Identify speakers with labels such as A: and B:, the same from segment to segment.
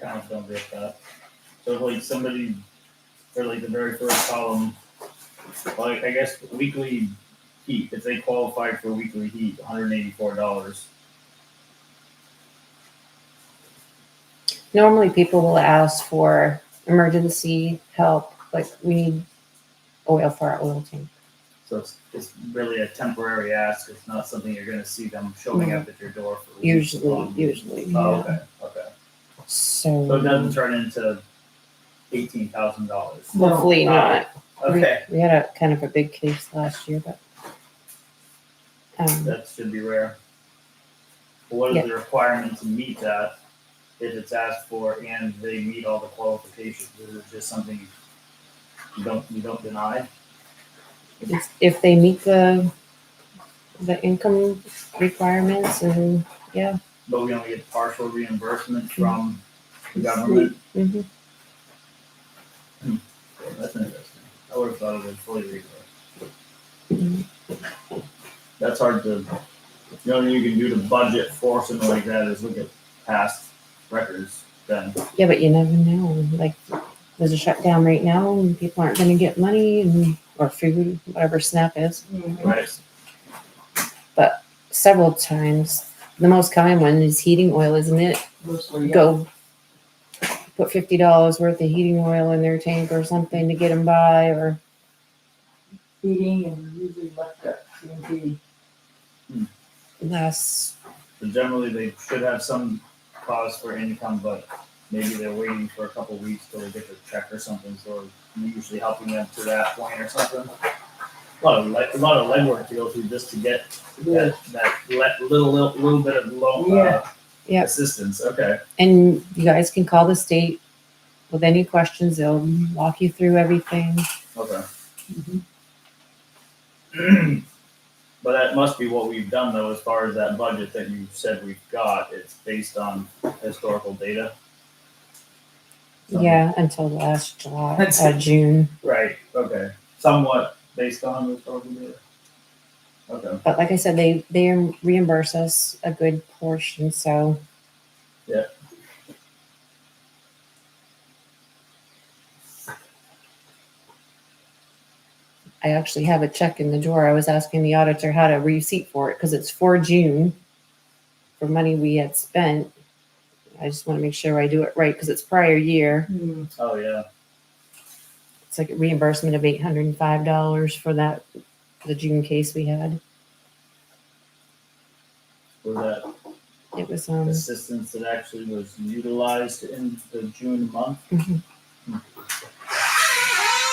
A: comments on this cut. So like somebody, or like the very first column, like I guess weekly heat, if they qualify for weekly heat, hundred and eighty-four dollars.
B: Normally, people will ask for emergency help, like we need oil for our oil tank.
A: So it's, it's really a temporary ask, it's not something you're gonna see them showing up at your door for. weeks
B: Usually,
A: long.
B: usually.
A: Oh,
B: yeah.
A: okay, okay, so it doesn't
B: So
A: turn into eighteen thousand dollars,
B: hopefully not. We-
A: Oh, okay,
B: We had a kind of a big case last year, but. Um,
A: that should be rare. What are the requirement to meet that, if it's asked for and they meet all the qualifications, is it just something you don't, you don't deny?
B: it's- if they meet the, the income requirements and, yeah.
A: But we only get partial reimbursement from the government,
B: mhm.
A: Yeah, that's interesting, I would have thought it was fully reimbursed. that's hard to. The only thing you can do to budget for something like that is look at past records. Then
B: Yeah, but you never know. Like, there's a shutdown right now, and people aren't going to get money and or food, whatever SNAP is.
A: right,
B: Several times, the most common one is heating oil, isn't it?
C: Mostly, yeah.
B: Go put fifty dollars worth of heating oil in their tank or something to get them by, or
C: Heating and usually left at C and P.
B: less.
A: so generally they should have some cause for income, but maybe they're waiting for a couple weeks till they get their check or something. So we're usually helping them to that point or something. A lot of le- a lot of legwork to go through just to get
C: Yeah.
A: that that le- little, little little bit of loan uh,
C: Yeah.
B: Yeah.
A: assistance. Okay,
B: And you guys can call the state with any questions. They'll walk you through everything.
A: okay.
C: Mhm. Mm-hmm.
A: But that must be what we've done though, as far as that budget that you said we've got, it's based on historical data.
B: Yeah, until last July,
C: Oh. That's-
B: uh, June.
A: Right, okay, somewhat based on historical data. Okay,
B: But like I said, they they reimburse us a good portion, so.
A: Yeah.
B: I actually have a check in the drawer. I was asking the auditor how to receipt for it because it's for June for money we had spent. I just want to make sure I do it right because it's prior year.
C: Hmm.
A: oh yeah,
B: It's like a reimbursement of eight hundred and five dollars for that, the June case we had.
A: was
B: It was,
A: that
B: um,
A: assistance that actually was utilized in the June month?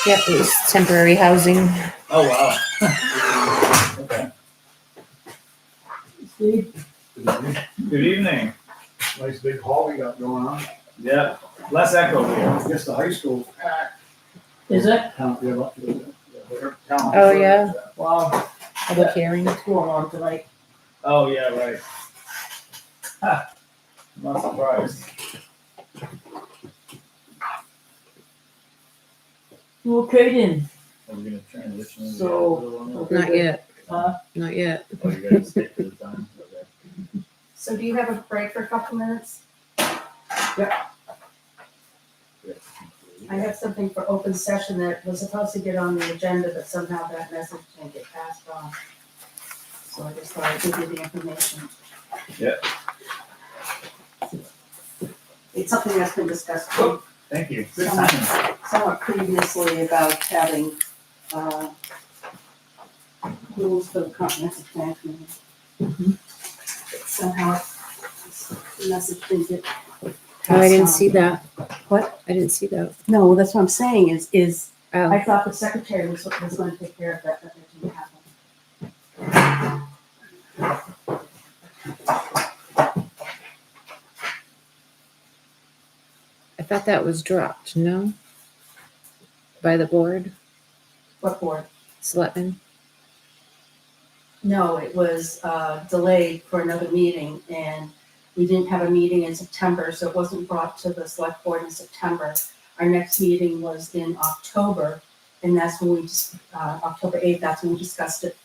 B: yep, it was temporary housing.
A: Oh, wow. Okay,
C: Steve,
A: good evening,
D: Nice big hall we got going on.
A: yeah, less echo here.
D: I guess the high school packed.
C: is it?
D: Town, yeah, up to the- yeah, they're town.
B: Oh, yeah.
C: Wow,
B: Public hearing.
C: what's going on tonight?
A: Oh, yeah, right. Ha, Not surprised,
C: You okay then?
A: are we gonna transition? into the
C: So-
A: other one now?
B: Not yet,
C: Huh?
B: not yet.
A: Oh, you gotta stick to the time, okay.
E: So do you have a break for a couple minutes? I have something for open session that was supposed to get on the agenda, but somehow that message didn't get passed on. So I just thought I'd give you the information.
A: Yeah.
E: It's something that's been discussed
A: Thank you. Good timing.
E: somewhat previously about having, uh, rules for the comprehensive plan committee.
F: Mm-hmm.
E: But Somehow, the message didn't get
F: Oh, I didn't
E: passed on.
F: see that.
E: What?
F: I didn't see that.
E: No, well, that's what I'm saying is, is
F: Oh,
E: I thought the secretary was, was going to take care of that, but that didn't happen.
F: I thought that was dropped, no? By the board,
E: What board?
F: selectmen?
E: No, it was, uh, delayed for another meeting and we didn't have a meeting in September, so it wasn't brought to the select board in September. Our next meeting was in October and that's when we, dis- uh, October eighth, that's when we discussed it.